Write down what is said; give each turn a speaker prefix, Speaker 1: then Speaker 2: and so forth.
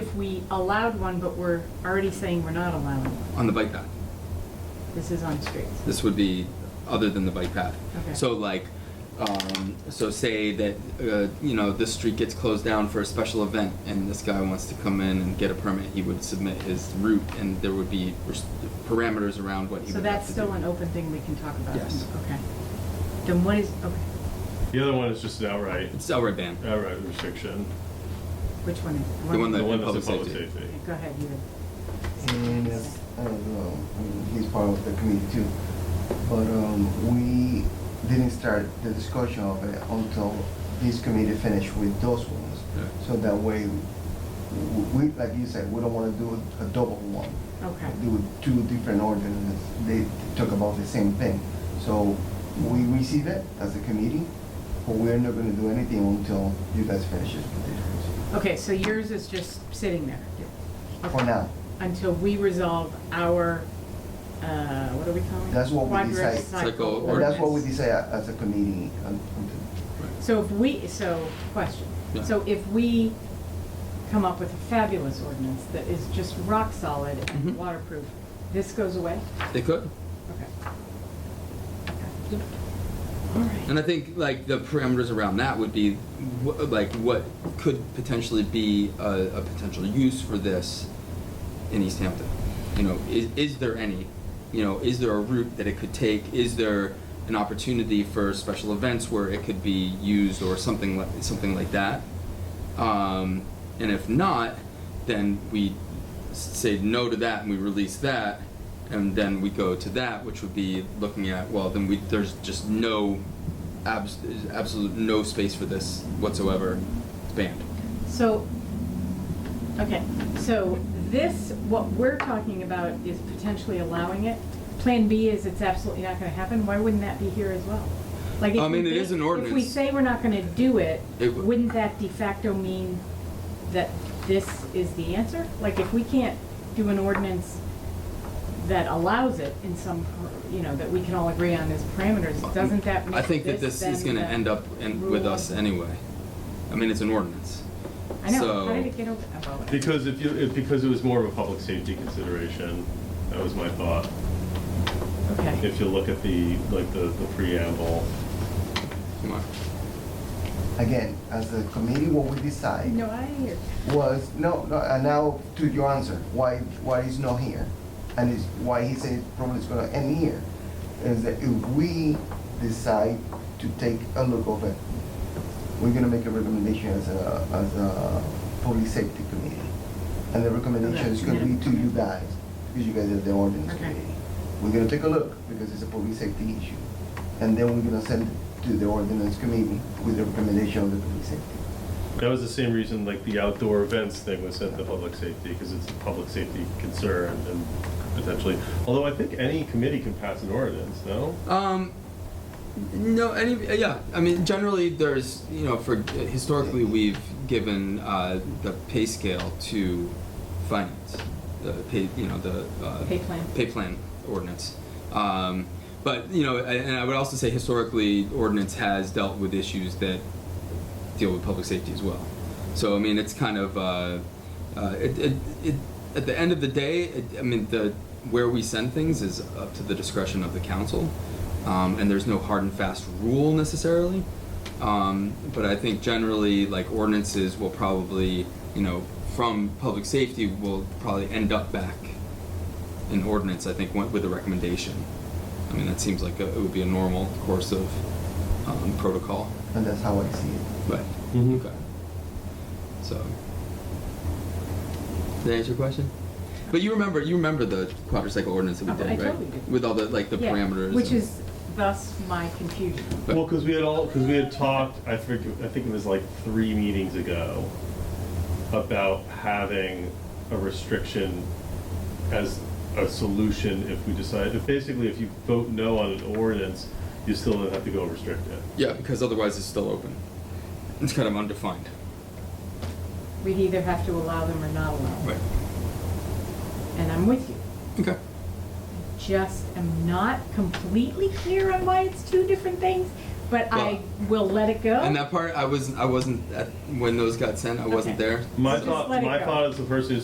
Speaker 1: we allowed one, but we're already saying we're not allowing one.
Speaker 2: on the bike path.
Speaker 1: This is on streets.
Speaker 2: This would be other than the bike path.
Speaker 1: Okay.
Speaker 2: So like, um, so say that, uh, you know, this street gets closed down for a special event and this guy wants to come in and get a permit, he would submit his route and there would be res- parameters around what he
Speaker 1: So
Speaker 2: would have
Speaker 1: that's
Speaker 2: to
Speaker 1: still
Speaker 2: do.
Speaker 1: an open thing we can talk about?
Speaker 2: Yes.
Speaker 1: Okay. Then what is, okay,
Speaker 3: The other one is just an outright,
Speaker 2: It's outright ban.
Speaker 3: outright restriction.
Speaker 1: which one is?
Speaker 2: The one
Speaker 3: The
Speaker 2: that-
Speaker 3: one that's in
Speaker 2: public
Speaker 3: public
Speaker 2: safety.
Speaker 3: safety.
Speaker 1: Okay, Go ahead, you.
Speaker 4: And if, I don't know, I mean, he's part of the committee too. But um, we didn't start the discussion of it until this committee finished with those ones.
Speaker 2: Yeah.
Speaker 4: So that way, w- we, like you said, we don't want to do a double one.
Speaker 1: Okay.
Speaker 4: Do two different ordinances, they talk about the same thing. So we receive it as a committee, but we're not going to do anything until you guys finish it.
Speaker 1: Okay, so yours is just sitting there?
Speaker 4: For now.
Speaker 1: Until we resolve our, uh, what are we calling? it?
Speaker 4: That's what we decide.
Speaker 1: Quadricycle
Speaker 2: Cycle
Speaker 4: And that's what we
Speaker 1: ordinance.
Speaker 4: decide as a committee um, un- until
Speaker 1: So if we, so, question.
Speaker 2: Yeah.
Speaker 1: So if we come up with a fabulous ordinance that is just rock solid
Speaker 2: Mhm.
Speaker 1: and waterproof, this goes away?
Speaker 2: They could.
Speaker 1: Okay. Okay. All right.
Speaker 2: And I think like the parameters around that would be wh- like what could potentially be a, a potential use for this in East Hampton. You know, is, is there any? You know, is there a route that it could take? Is there an opportunity for special events where it could be used or something like something like that? Um, and if not, then we s- say no to that and we release that, and then we go to that, which would be looking at well, then we there's just no, abs- there's absolute no space for this whatsoever. It's banned.
Speaker 1: So, okay, so this, what we're talking about is potentially allowing it. Plan B is it's absolutely not gonna happen, why wouldn't that be here as well? Like, if
Speaker 2: I mean,
Speaker 1: we
Speaker 2: it
Speaker 1: ba-
Speaker 2: is an
Speaker 1: If we
Speaker 2: ordinance.
Speaker 1: say we're not gonna do it,
Speaker 2: It w-
Speaker 1: wouldn't that de facto mean that this is the answer? Like, if we can't do an ordinance that allows it in some, per- you know, that we can all agree on as parameters, doesn't that make
Speaker 2: I think that this is
Speaker 1: then
Speaker 2: going to
Speaker 1: the
Speaker 2: end up in, with
Speaker 1: rule?
Speaker 2: us anyway. I mean, it's an ordinance.
Speaker 1: I know,
Speaker 2: So-
Speaker 1: how did it get over? oh, well, whatever.
Speaker 3: Because if you, if- because it was more of a public safety consideration, that was my thought.
Speaker 1: Okay.
Speaker 3: If you look at the, like, the the preamble.
Speaker 2: Come on.
Speaker 4: Again, as a committee, what we decide
Speaker 1: No, I hear.
Speaker 4: was, no, no, and now to your answer, why, why he's not here? And is, why he says probably it's gonna end here, is that if we decide to take a look of it, we're gonna make a recommendation as a, as a police safety committee. And the recommendation is gonna be to you guys, because you guys are the ordinance
Speaker 1: Okay.
Speaker 4: committee. We're gonna take a look, because it's a public safety issue. And then we're gonna send it to the ordinance committee with the recommendation of the police safety.
Speaker 3: That was the same reason, like, the outdoor events thing was sent to public safety, because it's a public safety concern and potentially, although I think any committee can pass an ordinance, no?
Speaker 2: Um, no, any, yeah, I mean, generally, there's, you know, for, historically, we've given, uh, the pay scale to finance, the pay, you know, the, uh.
Speaker 1: Pay plan.
Speaker 2: Pay plan ordinance. Um, but, you know, a- and I would also say historically, ordinance has dealt with issues that deal with public safety as well. So, I mean, it's kind of, uh, uh, it, it, it, at the end of the day, it, I mean, the, where we send things is up to the discretion of the council. Um, and there's no hard and fast rule necessarily. Um, but I think generally, like ordinances will probably, you know, from public safety will probably end up back in ordinance, I think, went with a recommendation. I mean, that seems like a, it would be a normal course of, um, protocol.
Speaker 4: And that's how I see it.
Speaker 2: Right.
Speaker 3: Mhm.
Speaker 2: Okay. So. Did that answer your question? But you remember, you remember the quadricycle ordinance that we
Speaker 1: Oh,
Speaker 2: did,
Speaker 1: I
Speaker 2: right?
Speaker 1: totally do.
Speaker 2: With all the like the
Speaker 1: Yeah,
Speaker 2: parameters.
Speaker 1: Which
Speaker 2: and-
Speaker 1: is thus my confusion.
Speaker 2: But-
Speaker 3: Well, because we had all, because we had talked, I forget, I think it was like three meetings ago, about having a restriction as a solution if we decide, if basically if you vote no on an ordinance, you still don't have to go restrict it.
Speaker 2: Yeah, because otherwise it's still open. It's kind of undefined.
Speaker 1: We'd either have to allow them or not allow them.
Speaker 2: Right.
Speaker 1: And I'm with you.
Speaker 2: Okay.
Speaker 1: Just am not completely clear on why it's two different things. but I will let it go.
Speaker 2: And that part, I wasn't. I wasn't at, when those got sent. I wasn't
Speaker 1: Okay.
Speaker 2: there.
Speaker 3: My
Speaker 1: Just
Speaker 3: thought,
Speaker 1: let it
Speaker 3: my
Speaker 1: go.
Speaker 3: thought as the person who's